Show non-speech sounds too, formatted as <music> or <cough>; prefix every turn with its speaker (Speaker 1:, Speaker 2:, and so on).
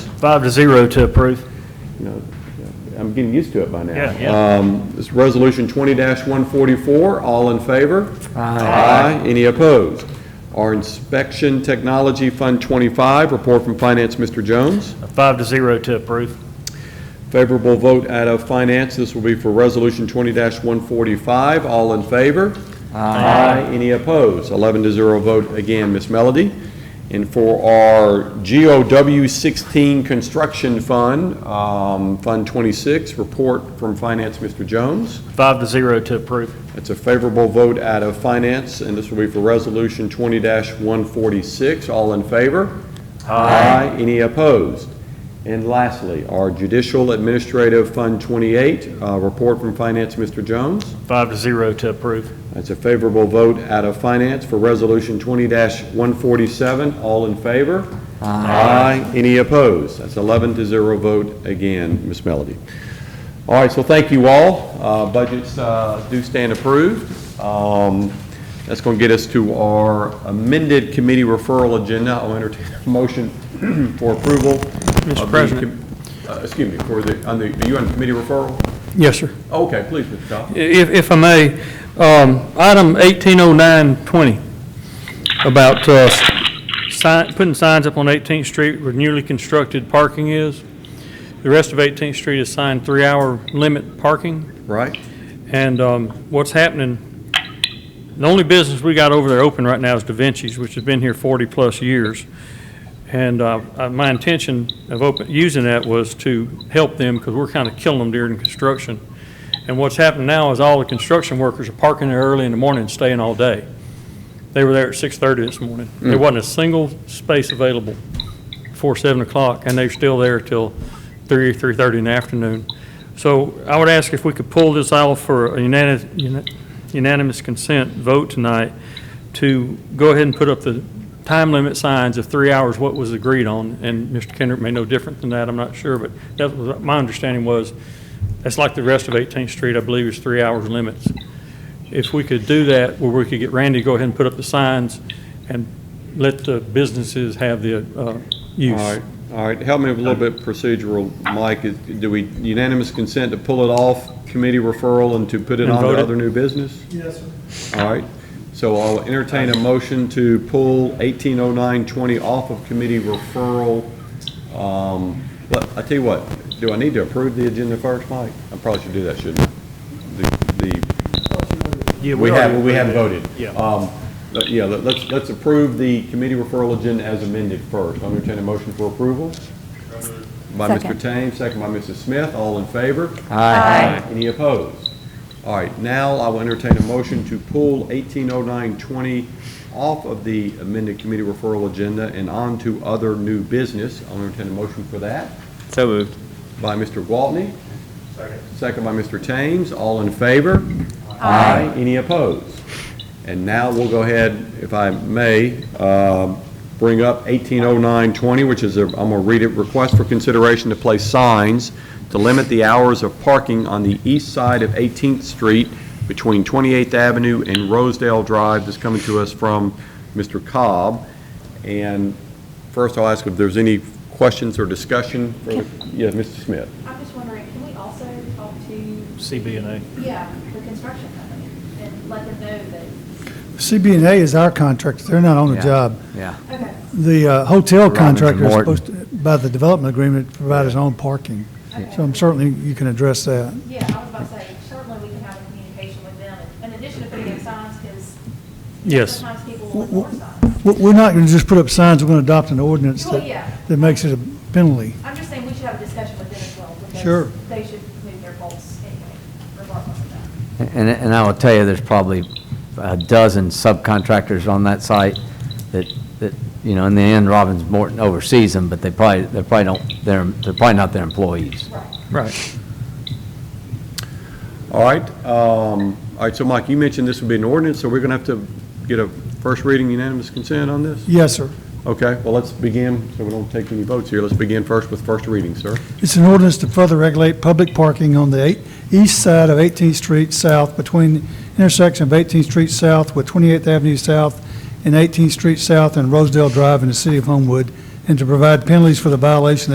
Speaker 1: Five to zero to approve.
Speaker 2: you know, I'm getting used to it by now.
Speaker 1: Yeah, yeah.
Speaker 2: Um, This is Resolution 20-144, all in favor? Aye. Any opposed? Our Inspection Technology Fund 25, report from Finance, Mr. Jones.
Speaker 1: Five to zero to approve.
Speaker 2: Favorable vote out of Finance, this will be for Resolution 20-145, all in favor? Aye. Any opposed? 11 to 0 vote again, Ms. Melody. And for our GOW 16 Construction Fund, um, Fund 26, report from Finance, Mr. Jones.
Speaker 1: Five to zero to approve.
Speaker 2: That's a favorable vote out of Finance, and this will be for Resolution 20-146. All in favor? Aye. Any opposed? And lastly, our Judicial Administrative Fund 28, uh, report from Finance, Mr. Jones.
Speaker 1: Five to zero to approve.
Speaker 2: That's a favorable vote out of Finance for Resolution 20-147. All in favor? Aye. Any opposed? That's 11 to 0 vote again, Ms. Melody. All right, so thank you all. Uh, Budgets uh, do stand approved. Um, That's going to get us to our amended committee referral agenda. I'll entertain a motion <clears throat> for approval. Mr. President. uh, Excuse me, for the, on the, are you on committee referral?
Speaker 3: Yes, sir.
Speaker 2: Okay, please, Mr. Dodd.
Speaker 3: If, if I may, um, item 180920, about uh, sign- putting signs up on 18th Street where newly constructed parking is. The rest of 18th Street is signed three-hour limit parking.
Speaker 2: Right?
Speaker 3: And um, what's happening, the only business we got over there open right now is Da Vinci's, which has been here 40-plus years. And uh, uh, my intention of open, using that was to help them, because we're kind of killing them during construction. And what's happened now is all the construction workers are parking there early in the morning and staying all day. They were there at 6:30 this morning. There wasn't a single space available before 7 o'clock, and they're still there till 3, 3:30 in the afternoon. So I would ask if we could pull this out for a unanimous- uni- unanimous consent vote tonight to go ahead and put up the time limit signs of three hours, what was agreed on, and Mr. Kendrick may know different than that, I'm not sure, but that was, my understanding was, that's like the rest of 18th Street, I believe, is three hours limits. If we could do that, where we could get Randy to go ahead and put up the signs and let the businesses have the uh, use.
Speaker 2: All right, all right, help me with a little bit procedural, Mike, Is- do we unanimous consent to pull it off committee referral and to put it
Speaker 3: And
Speaker 2: on to
Speaker 3: vote it?
Speaker 2: other new business? Yes, sir. All right, so I'll entertain a motion to pull eighteen oh nine twenty off of committee referral. Um, But I tell you what, do I need to approve the agenda first, Mike? I probably should do that, shouldn't I? The, the
Speaker 1: Yeah,
Speaker 2: we
Speaker 1: already
Speaker 2: have, we have
Speaker 1: approved
Speaker 2: voted.
Speaker 1: it. Yeah.
Speaker 2: Um, but Yeah, let- let's, let's approve the committee referral agenda as amended first. I'll entertain a motion for approval. By Mr.
Speaker 4: Second.
Speaker 2: Thames, second by Mrs. Smith, all in favor?
Speaker 4: Aye.
Speaker 2: Any opposed? All right, now I will entertain a motion to pull 180920 off of the amended committee referral agenda and on to other new business. I'll entertain a motion for that.
Speaker 5: So moved.
Speaker 2: By Mr. Waltney. Second. Second by Mr. Thames. All in favor? Aye. Any opposed? And now we'll go ahead, if I may, um, bring up 180920, which is, a am going to read it, request for consideration to place signs to limit the hours of parking on the east side of 18th Street between 28th Avenue and Rosedale Drive. This coming to us from Mr. Cobb. And first, I'll ask if there's any questions or discussion for, yeah, Mr. Smith.
Speaker 6: I'm just wondering, can we also talk to,
Speaker 1: CBNA.
Speaker 6: yeah, the construction company and let them know that,
Speaker 7: CB&A is our contractor, they're not on the job.
Speaker 5: Yeah.
Speaker 6: okay,
Speaker 7: The uh, hotel
Speaker 5: Robbins and
Speaker 7: contractor is
Speaker 5: Morton.
Speaker 7: supposed to, by the development agreement, provide his own parking. So I'm certainly, you can address that.
Speaker 6: yeah, I was about to say, certainly we can have a communication with them in addition to putting up signs, because
Speaker 3: Yes.
Speaker 6: sometimes people
Speaker 7: W-
Speaker 6: want more
Speaker 7: w-
Speaker 6: signs.
Speaker 7: w- We're not going to just put up signs, we're going to adopt an ordinance
Speaker 6: Well, yeah.
Speaker 7: that, that makes it a penalty.
Speaker 6: I'm just saying we should have a discussion with them as well,
Speaker 7: Sure.
Speaker 6: because they should move their goals anyway, regardless of that.
Speaker 5: And, and I will tell you, there's probably a dozen subcontractors on that site that, that, you know, in the end, Robbins Morton oversees them, but they probably, they probably don't, they're, they're probably not their employees.
Speaker 3: Right.
Speaker 2: All right, um, all right, so Mike, you mentioned this would be an ordinance, so we're going to have to get a first reading unanimous consent on this?
Speaker 7: Yes, sir.
Speaker 2: Okay, well, let's begin, so we don't take any votes here, let's begin first with first reading, sir.
Speaker 7: It's an ordinance to further regulate public parking on the eight- east side of 18th Street South between intersection of 18th Street South with 28th Avenue South and 18th Street South and Rosedale Drive in the city of Homewood, and to provide penalties for the violation